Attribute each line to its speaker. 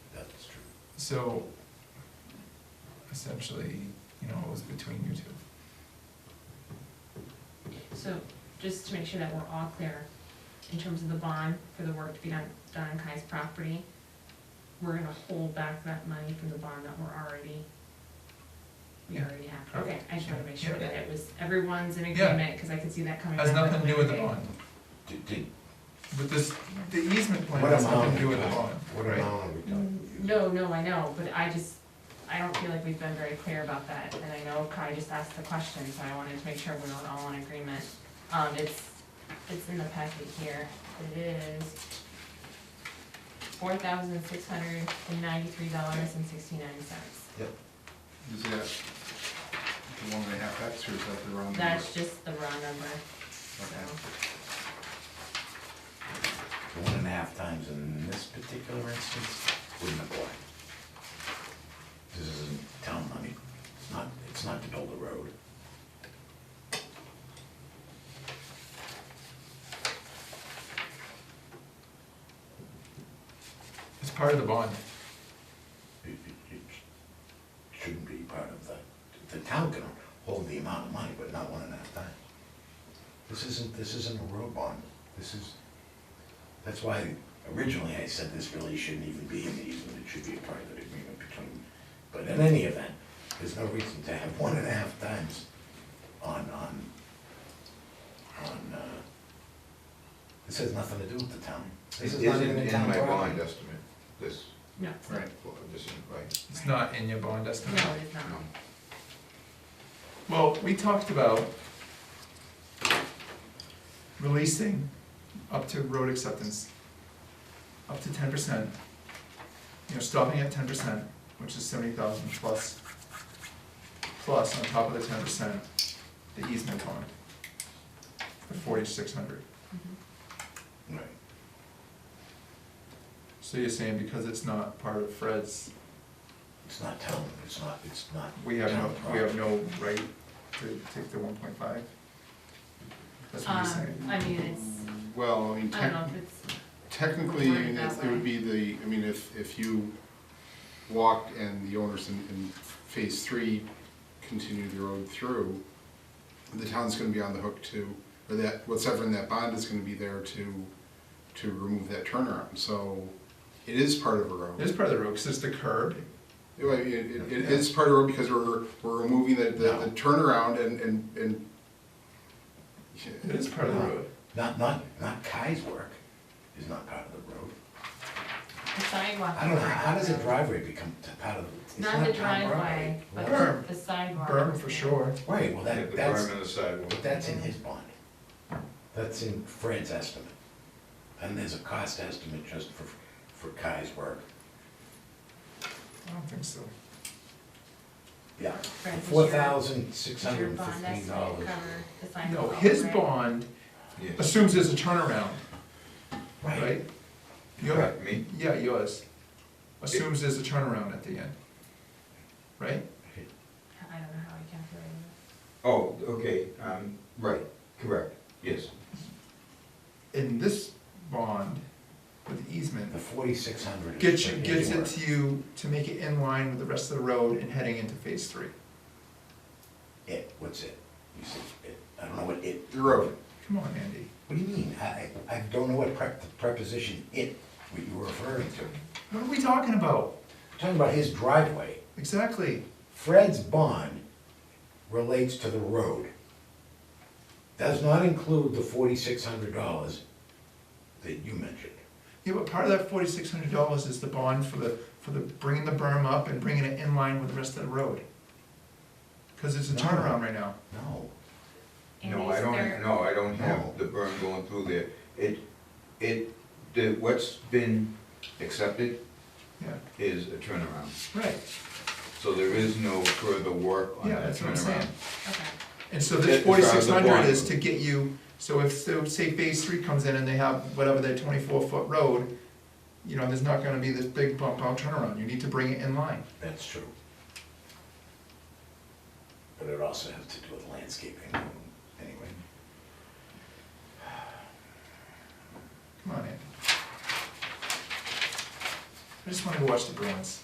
Speaker 1: So essentially, you know, it was between you two.
Speaker 2: So, just to make sure that we're all clear, in terms of the bond for the work to be done, done on Kai's property, we're gonna hold back that money from the bond that we're already, we
Speaker 1: Yeah.
Speaker 2: already have. Okay, I just wanna make sure
Speaker 1: Yeah.
Speaker 2: that it was, everyone's in
Speaker 1: Yeah.
Speaker 2: agreement, cause I can see that coming back.
Speaker 1: Has nothing to do with the
Speaker 2: later.
Speaker 1: bond,
Speaker 3: Did, did,
Speaker 1: but this, the easement plan
Speaker 3: what
Speaker 1: has
Speaker 3: amount?
Speaker 1: nothing to do with the
Speaker 3: are we
Speaker 1: bond,
Speaker 3: talking- What
Speaker 1: right?
Speaker 3: amount are we talking?
Speaker 2: No, no, I know, but I just, I don't feel like we've been very clear about that, and I know Kai just asked the question, so I wanted to make sure we're not all in agreement. Um, it's, it's in the packet here, it is four thousand six hundred and ninety-three dollars and sixty-nine cents.
Speaker 4: Is that the one and a half X or is that the wrong number?
Speaker 2: That's just the raw number, so,
Speaker 4: Okay.
Speaker 3: One and a half times in this particular instance wouldn't apply. This isn't town money, it's not, it's not to build a road.
Speaker 1: It's part of the bond,
Speaker 3: It, it, it shouldn't be part of the, the town can hold the amount of money, but not one and a half times. This isn't, this isn't a road bond, this is, that's why originally I said this really shouldn't even be in the easement, it should be a private agreement between, but in any event, there's no reason to have one and a half times on, on, on, uh, this has nothing to do with the town. This
Speaker 5: It
Speaker 3: is not
Speaker 5: isn't
Speaker 3: even a
Speaker 5: in
Speaker 3: town
Speaker 5: my
Speaker 3: property.
Speaker 5: bond estimate, this,
Speaker 2: no,
Speaker 4: Right,
Speaker 5: well, this isn't right.
Speaker 1: it's not in your bond estimate.
Speaker 2: no, it is not.
Speaker 1: Well, we talked about releasing up to road acceptance, up to ten percent. You know, stopping at ten percent, which is seventy thousand plus, plus on top of the ten percent, the easement bond. The forty-six hundred.
Speaker 2: Mhm.
Speaker 3: Right.
Speaker 1: So you're saying because it's not part of Fred's,
Speaker 3: It's not town, it's not, it's not.
Speaker 1: we have no,
Speaker 3: town
Speaker 1: we have
Speaker 3: property.
Speaker 1: no right to take the one point five? That's what you're
Speaker 2: Um,
Speaker 1: saying.
Speaker 2: I mean, it's,
Speaker 4: well, I mean,
Speaker 2: I don't know
Speaker 4: tec-
Speaker 2: if it's,
Speaker 4: technically, I mean,
Speaker 2: Worded
Speaker 4: it
Speaker 2: that
Speaker 4: it would
Speaker 2: way.
Speaker 4: be the, I mean, if, if you walked and the owners in, in phase three continued the road through, the town's gonna be on the hook to, or that, what's ever in that bond is gonna be there to, to remove that turnaround, so it is part of a road.
Speaker 1: It is part of the road, cause it's the curb,
Speaker 4: It, it, it is part of it because we're, we're removing the, the the turnaround and, and, and.
Speaker 1: It is part of the road.
Speaker 3: Not, not, not Kai's work is not part of the road.
Speaker 2: the sidewalk.
Speaker 3: I don't know,
Speaker 2: is
Speaker 3: how does a
Speaker 2: also-
Speaker 3: driveway become t- part of, the- it's not
Speaker 2: Not the
Speaker 3: town
Speaker 2: driveway,
Speaker 3: property.
Speaker 1: Berm.
Speaker 2: but the sidewalk.
Speaker 1: Berm for sure.
Speaker 3: Right, well,
Speaker 5: Yeah,
Speaker 3: that,
Speaker 5: The
Speaker 3: that's,
Speaker 5: berm and the sidewalk.
Speaker 3: but that's in his bond. That's in Fred's estimate. And there's a cost estimate just for, for Kai's work.
Speaker 1: I don't think so.
Speaker 3: Yeah.
Speaker 2: Fred, does your-
Speaker 3: Four thousand six
Speaker 2: Does
Speaker 3: hundred
Speaker 2: your
Speaker 3: and
Speaker 2: bond
Speaker 3: fifteen
Speaker 2: estimate
Speaker 3: dollars.
Speaker 2: cover the sign
Speaker 1: No,
Speaker 2: of the
Speaker 1: his
Speaker 2: right?
Speaker 1: bond
Speaker 5: Yeah.
Speaker 1: assumes there's a turnaround,
Speaker 3: Right,
Speaker 1: right? Your,
Speaker 5: Correct, me?
Speaker 1: yeah, yours assumes there's a turnaround at the end, right?
Speaker 2: I don't know how I calculated it.
Speaker 5: Oh, okay, um, right, correct, yes.
Speaker 1: In this bond with the easement,
Speaker 3: the forty-six hundred.
Speaker 1: gets you, gets it to you to make it in line with the rest of the road and heading into phase three.
Speaker 3: It, what's it? You said it, I don't know what it.
Speaker 4: The road.
Speaker 1: Come on, Andy.
Speaker 3: What do you mean? I, I don't know what prep, the preposition it, what you were referring to.
Speaker 1: What are we talking about?
Speaker 3: We're Talking about his driveway,
Speaker 1: Exactly.
Speaker 3: Fred's bond relates to the road. Does not include the forty-six hundred dollars that you mentioned.
Speaker 1: Yeah, but part of that forty-six hundred dollars is the bond for the, for the, bringing the berm up and bringing it in line with the rest of the road. Cause it's a
Speaker 3: No.
Speaker 1: turnaround right now.
Speaker 3: No,
Speaker 2: And
Speaker 5: No, I
Speaker 2: these
Speaker 5: don't,
Speaker 2: are-
Speaker 5: no, I don't
Speaker 3: No.
Speaker 1: Oh.
Speaker 5: have the berm going through there. It, it, the, what's been accepted
Speaker 1: Yeah,
Speaker 5: is a turnaround.
Speaker 1: right.
Speaker 5: So there is no further work on
Speaker 1: Yeah,
Speaker 5: that
Speaker 1: that's what I'm saying.
Speaker 5: turnaround.
Speaker 2: Okay,
Speaker 1: And so this
Speaker 5: That is out
Speaker 1: forty-six
Speaker 5: of the
Speaker 1: hundred
Speaker 5: bond.
Speaker 1: is to get you, so if, so say phase three comes in and they have whatever their twenty-four foot road, you know, there's not gonna be this big bump out turnaround, you need to bring it in line.
Speaker 3: that's true. But it also has to do with landscaping, anyway.
Speaker 1: Come on, Andy. I just wanna go watch the Bruins.